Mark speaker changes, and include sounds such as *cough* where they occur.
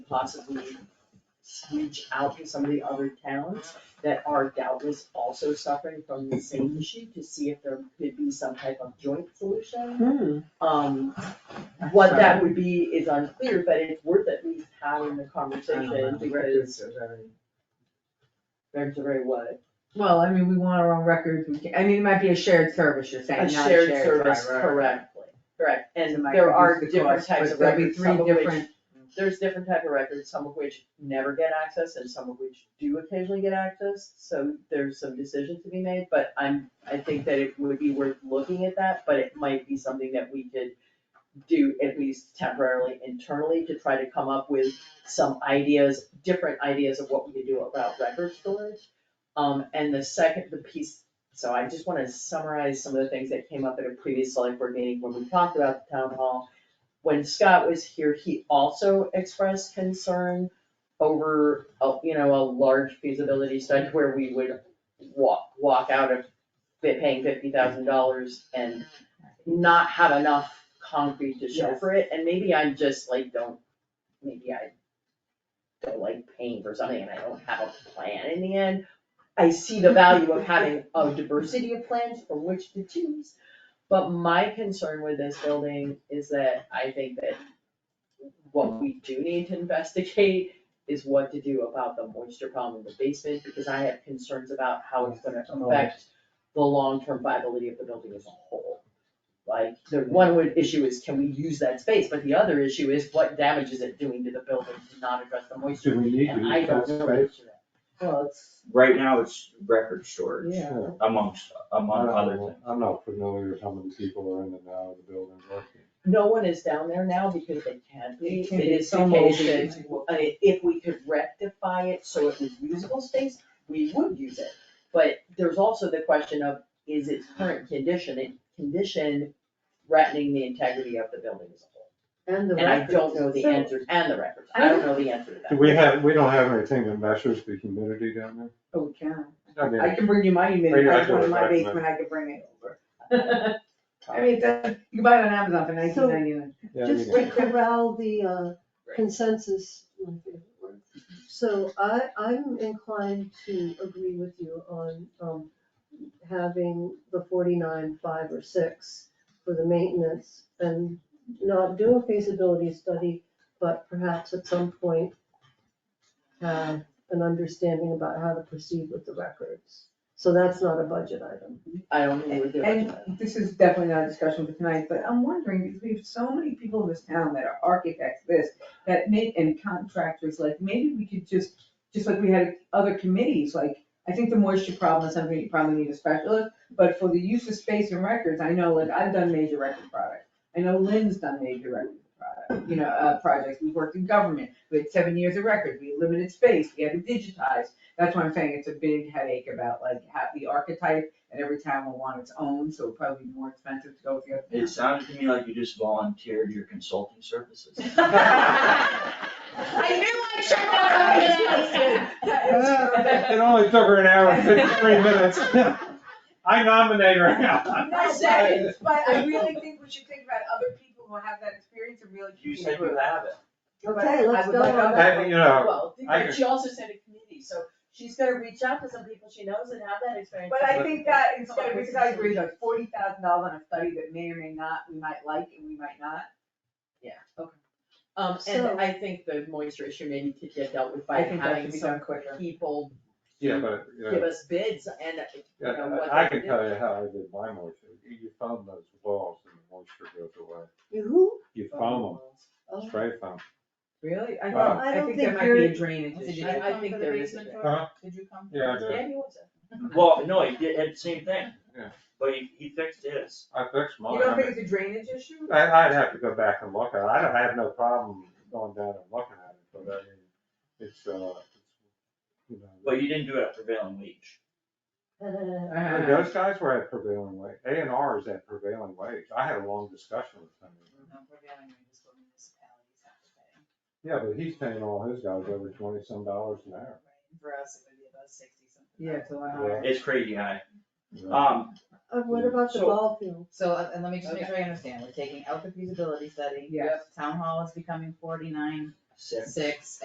Speaker 1: possibly reach out to some of the other towns that are doubtless also suffering from the same issue to see if there could be some type of joint solution.
Speaker 2: Hmm.
Speaker 1: Um, what that would be is unclear, but it's worth at least having the
Speaker 2: Uh-huh.
Speaker 1: conversation because there's a very what,
Speaker 2: Well, I mean, we want our own records, we can, I mean, it might be a shared service, you're
Speaker 1: a
Speaker 2: saying, not a
Speaker 1: shared
Speaker 2: shared.
Speaker 1: service
Speaker 2: right, right, right.
Speaker 1: correctly. Correct.
Speaker 2: It
Speaker 1: And
Speaker 2: might
Speaker 1: there are
Speaker 2: reduce the
Speaker 1: different
Speaker 2: cost,
Speaker 1: types
Speaker 2: but
Speaker 1: of
Speaker 2: there'll be
Speaker 1: records,
Speaker 2: three
Speaker 1: some of which
Speaker 2: different-
Speaker 1: there's different type of records, some of which never get access and some of which do occasionally get access, so there's some decisions to be made, but I'm, I think that it would be worth looking at that, but it might be something that we could do at least temporarily internally to try to come up with some ideas, different ideas of what we could do about record storage. Um, and the second, the piece, so I just wanna summarize some of the things that came up at a previous select board meeting when we talked about the town hall when Scott was here, he also expressed concern over, a- you know, a large feasibility study where we would walk, walk out of fi- paying fifty thousand dollars and not have enough concrete to show
Speaker 2: Yes.
Speaker 1: for it, and maybe I'm just like, don't, maybe I don't like paying for something and I don't have a plan in the end. I see the value of having a diversity of plans from which to choose, but my concern with this building is that I think that what we do need to investigate is what to do about the moisture problem in the basement, because I have concerns about how it's gonna affect the long-term viability of the building as a whole. Like, the one would issue is, can we use that space, but the other issue is, what damage is it doing to the building to not address the moisture?
Speaker 3: Do we need to
Speaker 1: And I
Speaker 3: use
Speaker 1: don't
Speaker 3: that
Speaker 1: know.
Speaker 3: space?
Speaker 2: Well, it's,
Speaker 4: Right now, it's record storage
Speaker 2: yeah.
Speaker 4: amongst, among
Speaker 3: Oh.
Speaker 4: other things.
Speaker 3: I'm not familiar with how many people are in and out of the building working.
Speaker 1: No one is down there now because they can't be,
Speaker 2: It can
Speaker 1: it
Speaker 2: be
Speaker 1: is
Speaker 2: so moldy.
Speaker 1: vacation, I mean, if we could rectify it so it was usable space, we would use it. But there's also the question of, is its current condition, it condition threatening the integrity of the building as a whole?
Speaker 2: And the
Speaker 1: And I don't know the
Speaker 2: So-
Speaker 1: answer, and the records, I don't know the answer to that.
Speaker 3: Do we have, we don't have anything that measures the humidity down
Speaker 2: Oh, we can.
Speaker 3: there? I mean,
Speaker 2: I can bring you my
Speaker 3: Bring
Speaker 2: email,
Speaker 3: it
Speaker 2: I
Speaker 3: back
Speaker 2: have
Speaker 3: to
Speaker 2: one
Speaker 3: the
Speaker 2: in my
Speaker 3: document.
Speaker 2: basement, I could bring it *laughs* over. I mean, that, you can buy it on Amazon for nineteen ninety-nine.
Speaker 3: yeah,
Speaker 5: Just
Speaker 3: you
Speaker 5: to
Speaker 3: can-
Speaker 5: corral the uh, consensus, my favorite word. So I, I'm inclined to agree with you on, um, having the forty-nine, five or six for the maintenance and not do a feasibility study, but perhaps at some point have an understanding about how to proceed with the records. So that's not a budget item.
Speaker 1: I don't know what they're doing.
Speaker 2: And this is definitely not a discussion for tonight, but I'm wondering, because we have so many people in this town that are architects, this, that make, and contractors, like, maybe we could just, just like we had other committees, like, I think the moisture problem is something you probably need a specialist, but for the use of space and records, I know, like, I've done major record products. I know Lynn's done major record product, you know, uh, projects, we worked in government, we had seven years of records, we had limited space, we had to digitize. That's why I'm saying it's a big headache about like how the archetype and every town will want its own, so it'll probably be more expensive to go with the other.
Speaker 4: It sounded to me like you just volunteered your consulting *laughs*
Speaker 2: *laughs*
Speaker 4: services.
Speaker 2: I knew I
Speaker 1: should *laughs* have
Speaker 3: *laughs* It only took her an hour and fifty-three minutes. I nominate her now.
Speaker 2: No, but, but I really think we should think about other people who have that experience and really.
Speaker 4: You said you have it.
Speaker 2: But
Speaker 5: Okay, let's
Speaker 2: I would
Speaker 5: go
Speaker 2: like
Speaker 5: on.
Speaker 2: other-
Speaker 3: I- you know,
Speaker 1: Well,
Speaker 3: I
Speaker 1: but she also said a committee, so she's gonna reach out to some people she knows and have that experience.
Speaker 2: But I think that instead, because I agree, like forty thousand dollars on a study that may or may not, we might like and we might not.
Speaker 1: Yeah, okay. Um,
Speaker 5: So-
Speaker 1: and I think the moisture issue maybe could get dealt with by
Speaker 2: I think that should
Speaker 1: having
Speaker 2: be
Speaker 1: some
Speaker 2: done quicker.
Speaker 1: people
Speaker 3: yeah, but, you know.
Speaker 1: give us bids and, you
Speaker 3: Yeah,
Speaker 1: know, what
Speaker 3: I I
Speaker 1: they
Speaker 3: can
Speaker 1: do.
Speaker 3: tell you how I did my moisture. You you foam those walls and the moisture goes away.
Speaker 5: You who?
Speaker 3: You foam them, spray foam.
Speaker 2: Really? I
Speaker 3: Well,
Speaker 2: thought,
Speaker 5: I
Speaker 2: I
Speaker 5: don't
Speaker 2: think there
Speaker 5: think
Speaker 2: might be
Speaker 5: you're-
Speaker 2: a drainage issue.
Speaker 1: I, I think there is. a bid.
Speaker 3: Huh?
Speaker 6: Did you come?
Speaker 3: Yeah, I did.
Speaker 1: Yeah, he wants it.
Speaker 4: Well, no, he did, had the same thing.
Speaker 3: Yeah.
Speaker 4: But he, he fixed his.
Speaker 3: I fixed
Speaker 2: You
Speaker 3: mine. I
Speaker 2: don't think
Speaker 3: mean,
Speaker 2: it's a drainage issue?
Speaker 3: I, I'd have to go back and look at it. I don't, I have no problem going down and looking at it, but I mean, it's, uh, it's, you know.
Speaker 4: But you didn't do it at prevailing wage.
Speaker 3: And
Speaker 6: Uh-huh.
Speaker 3: Those guys were at prevailing wage. A and R is at prevailing wage. I had a long discussion with them.
Speaker 1: Mm-hmm.
Speaker 3: Yeah, but he's paying all his guys over twenty some dollars an hour.
Speaker 6: For us, it would be about sixty something.
Speaker 2: Yeah, uh-huh. it's a lot
Speaker 3: Yeah.
Speaker 2: higher.
Speaker 4: It's crazy high.
Speaker 3: you know.
Speaker 4: Um,
Speaker 5: Uh, What about the
Speaker 4: So-
Speaker 5: ball field?
Speaker 6: So, uh, and let me just make sure I understand, we're taking out the feasibility study.
Speaker 2: Yes.
Speaker 6: Town hall is becoming forty-nine,
Speaker 4: six.
Speaker 6: six,